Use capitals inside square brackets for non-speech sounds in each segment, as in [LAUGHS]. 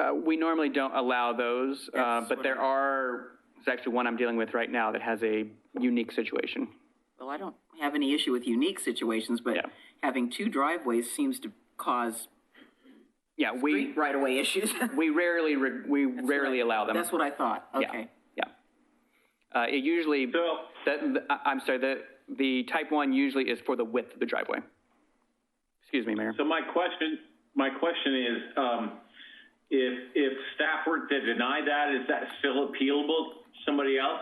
Uh, we normally don't allow those, uh, That's but what there I- are, there's actually one I'm dealing with right now that has a unique situation. Well, I don't have any issue with unique situations, but Yeah. having two driveways seems to cause Yeah, we, right-of-way issues. [LAUGHS] we rarely, re- we rarely allow them. That's what I thought, okay. Yeah. Uh, it usually, So- that, th- I- I'm sorry, the, the type one usually is for the width of the driveway. Excuse me, Mayor. So my question, my question is, um, if, if staff were to deny that, is that still appealable to somebody else?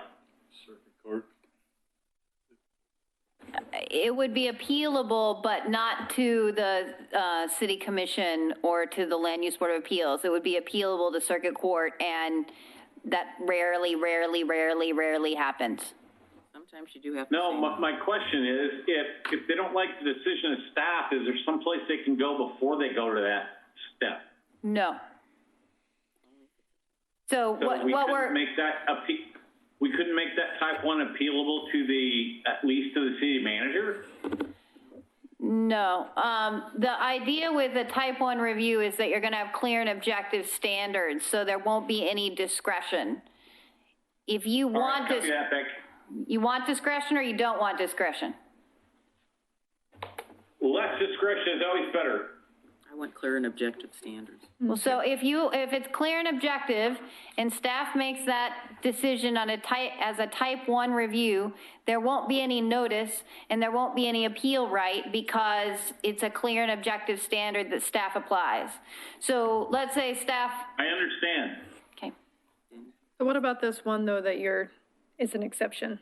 It would be appealable, but not to the uh, city commission or to the land use board of appeals. It would be appealable to circuit court, and that rarely, rarely, rarely, rarely happens. Sometimes you do have to No, say, my, my question is, if, if they don't like the decision of staff, is there someplace they can go before they go to that step? No. So So what, we what couldn't we're, Make that appe- we couldn't make that type one appealable to the, at least to the city manager? no, um, the idea with the type one review is that you're going to have clear and objective standards, so there won't be any discretion. If you Alright, want, copy dis- that, Beck. you want discretion or you don't want discretion? Less discretion is always better. I want clear and objective standards. Well, so if you, if it's clear and objective, and staff makes that decision on a type, as a type one review, there won't be any notice, and there won't be any appeal right, because it's a clear and objective standard that staff applies. So let's say staff, I understand. okay, So what about this one, though, that you're, is an exception?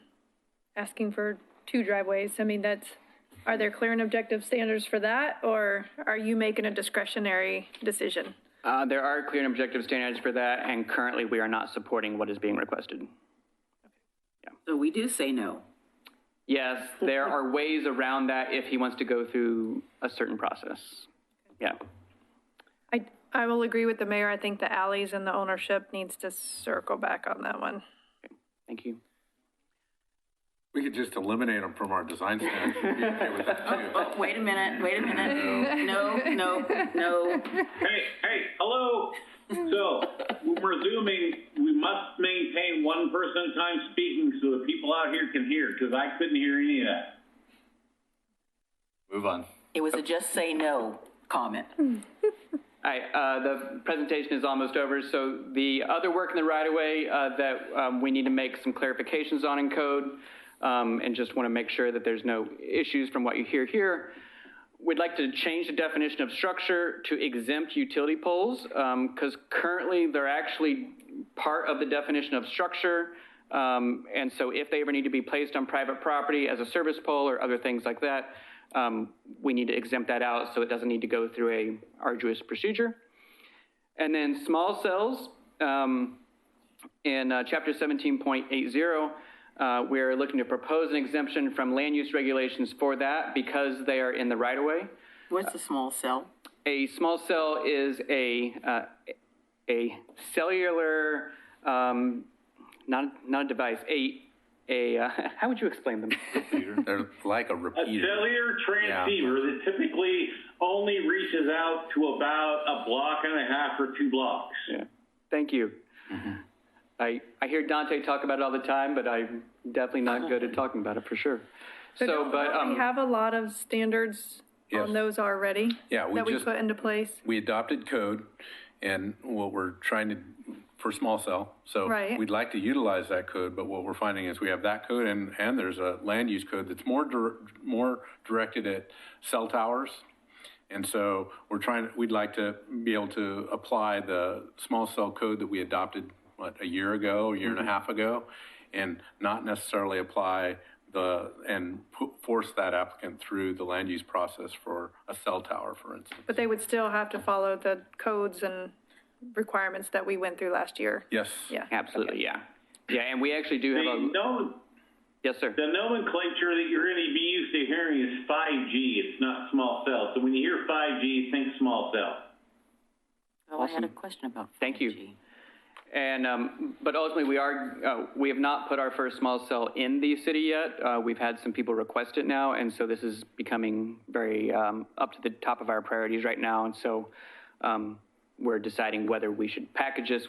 Asking for two driveways, I mean, that's, are there clear and objective standards for that? Or are you making a discretionary decision? Uh, there are clear and objective standards for that, and currently we are not supporting what is being requested. So we do say no. Yes, there are ways around that if he wants to go through a certain process. Yeah. I, I will agree with the mayor, I think the alleys and the ownership needs to circle back on that one. Thank you. We could just eliminate them from our design standards. You'd be okay with that too. Oh, wait a minute, wait a minute. No, no, no. Hey, hey, hello. So when we're zooming, we must maintain one person at a time speaking so the people out here can hear, because I couldn't hear any of that. [LAUGHS] Move on. It was a just say no comment. All right, uh, the presentation is almost over, so the other work in the right-of-way uh, that um, we need to make some clarifications on in code, um, and just want to make sure that there's no issues from what you hear here. We'd like to change the definition of structure to exempt utility poles, because currently they're actually part of the definition of structure. Um, and so if they ever need to be placed on private property as a service pole or other things like that, um, we need to exempt that out so it doesn't need to go through a arduous procedure. And then small cells, um, in uh, chapter 17.80, uh, we're looking to propose an exemption from land use regulations for that because they are in the right of way. What's a small cell? A small cell is a, uh, a cellular, um, not, not a device, a, a, uh, [LAUGHS] how would you explain them? They're like a A repeater. cellular transceiver that typically only reaches out to about a block and a half or two blocks. Yeah. Thank you. Mm-hmm. I, I hear Dante talk about it all the time, but I'm definitely not good at talking about it for sure. So, don't but, We um, have a lot of standards Yes. on those already. Yeah, we That we just- put into place. We adopted code and what we're trying to, for small cell. So Right. we'd like to utilize that code, but what we're finding is we have that code and, and there's a land use code that's more, dir- more directed at cell towers. And so we're trying, we'd like to be able to apply the small cell code that we adopted, what, a year ago, a year and a half ago, and not necessarily apply the, and pu- force that applicant through the land use process for a cell tower, for instance. But they would still have to follow the codes and requirements that we went through last year. Yes. Yeah. absolutely, yeah. Yeah, and we actually do have The, a, no, yes, sir. the nomenclature that you're going to be used to hearing is 5G. It's not small cell. So when you hear 5G, think small cell. Oh, I had a question about 5G. Thank you. And, um, but ultimately, we are, uh, we have not put our first small cell in the city yet. Uh, we've had some people request it now, and so this is becoming very, um, up to the top of our priorities right now. And so, um, we're deciding whether we should package this